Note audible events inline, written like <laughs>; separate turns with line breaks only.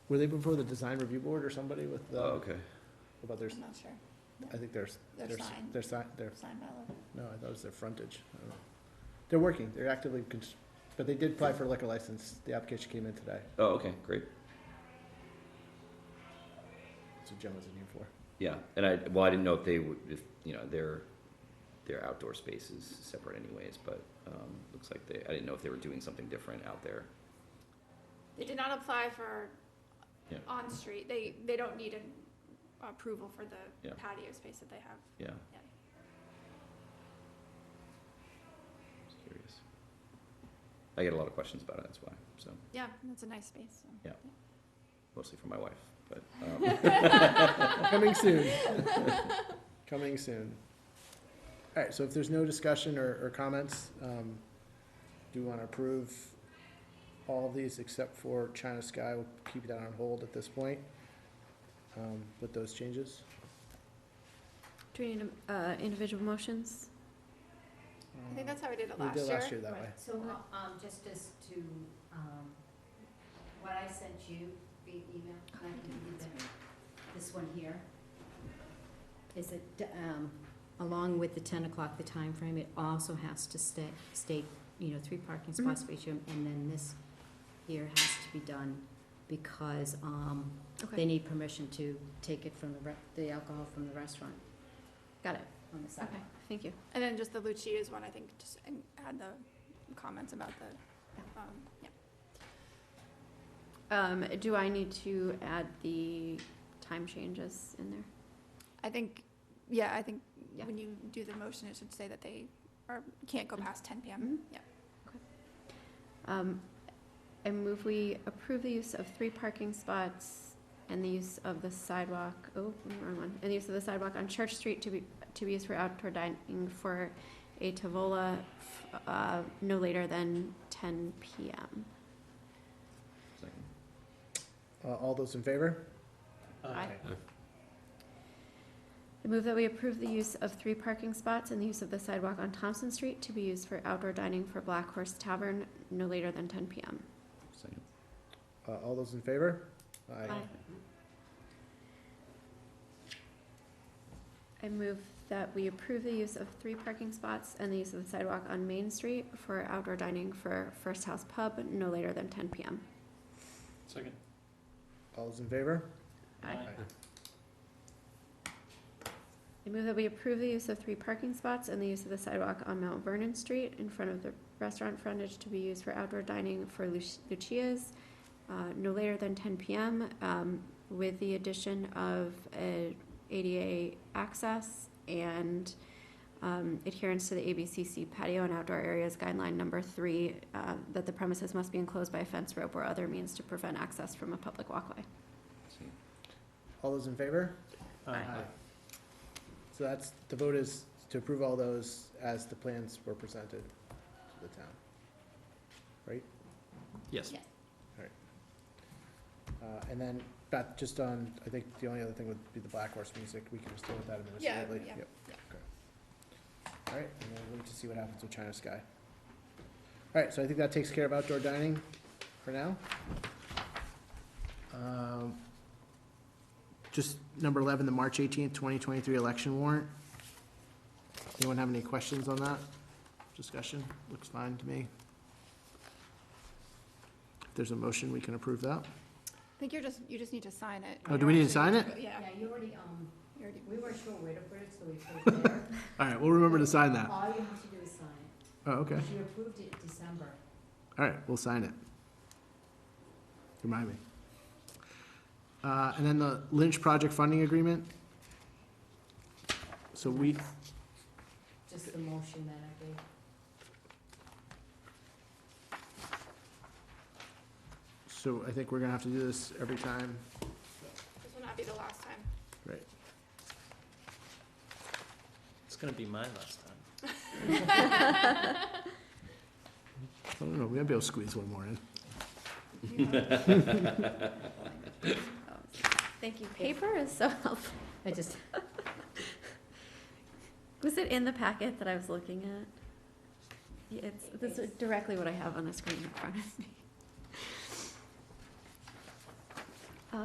Were they before the design review board or somebody with,
Oh,
uh,
okay.
about their,
I'm not sure,
I think there's,
Their
their, s-
sign.
their sign, their,
sign bylaw.
no, I thought it was their frontage. I don't know. They're working, they're actively, cons- but they did apply for a liquor license, the application came in today,
Oh, okay, great.
that's what Jen was in here for.
<laughs>
Yeah, and I, well, I didn't know if they would, if, you know, their, their outdoor space is separate anyways, but, um, looks like they, I didn't know if they were doing something different out there.
They did not apply for
Yeah.
on-street, they, they don't need an approval for the
Yeah.
patio space that they have.
Yeah.
Yeah.
Just curious. I get a lot of questions about it, that's why, so,
Yeah, that's a nice space. so.
Yeah. mostly from my wife, but, um,
Coming soon. Coming soon. All right, so if there's no discussion or, or comments, um, do you want to approve all of these except for China Sky? We'll keep that on hold at this point, um, with those changes.
Do we need, uh, individual motions?
I think that's how we did it
We
last year.
did last year that way.
So, uh, um, just as to, um, what I sent you via email, and I can give you the- this one here, is it, um, along with the ten o'clock, the time frame, it also has to stay, state, you know, three parking
Mm-hmm.
spots for each, room, and then this here has to be done because, um, they
Okay,
need permission to take it from the re- the alcohol from the restaurant
got it.
on the side.
Okay, thank you.
And then just the Lucia's one, I think, just and add the comments about the, um, yeah.
Um, do I need to add the time changes in there?
I think, yeah, I think
Yeah.
when you do the motion, it should say that they are, can't go past ten PM.
Mhm.
Yeah.
Um, I move we approve the use of three parking spots and the use of the sidewalk, oh, wrong one, and the use of the sidewalk on Church Street to be, to be used for outdoor dining for a Tavola, f- uh, no later than ten PM.
second.
Uh, all those in favor?
Aye. I move that we approve the use of three parking spots and the use of the sidewalk on Thompson Street to be used for outdoor dining for Black Horse Tavern no later than ten PM.
second,
Uh, all those in favor?
Aye. I move that we approve the use of three parking spots and the use of the sidewalk on Main Street for outdoor dining for First House Pub no later than ten PM.
Second.
All those in favor?
Aye. I move that we approve the use of three parking spots and the use of the sidewalk on Mount Vernon Street in front of the restaurant frontage to be used for outdoor dining for Lu- Lucia's, uh, no later than ten PM, um, with the addition of uh, ADA access and, um, adherence to the ABCC patio and outdoor areas guideline number three, uh, that the premises must be enclosed by a fence rope or other means to prevent access from a public walkway.
second.
All those in favor? Aye. So that's, the vote is to approve all those as the plans were presented to the town.
Yes.
Uh, and then, Beth, just on, I think the only other thing would be the Black Horse music, we can just deal with that
Yeah,
administratively.
yeah,
Yep. Okay. All right, and then we'll wait to see what happens with China Sky. All right, so I think that takes care of outdoor dining for now. Um, Just number eleven, the March eighteenth, twenty twenty-three election warrant. Anyone have any questions on that? Discussion, looks fine to me. If there's a motion, we can approve that.
I think you're just, you just need to sign it.
Oh, do we need to sign it?
Yeah.
Yeah, you already, um,
you already-
we weren't sure where to put it, so we put it there.
All right, we'll remember to sign that.
All you have to do is sign it.
Oh, Ah. okay.
She approved it in December.
All right, we'll sign it. Remind me. Uh, and then the Lynch Project Funding Agreement. So we,
Just the motion that I gave.
so I think we're gonna have to do this every time.
This will not be the last time.
Right.
It's gonna be my last time.
I don't know, we might be able to squeeze one more in.
<laughs>
<laughs>
Thank you. Paper is so <laughs> helpful.
I just,
Was it in the packet that I was looking at? Yeah, It's, this is directly what I have on the screen in front of me.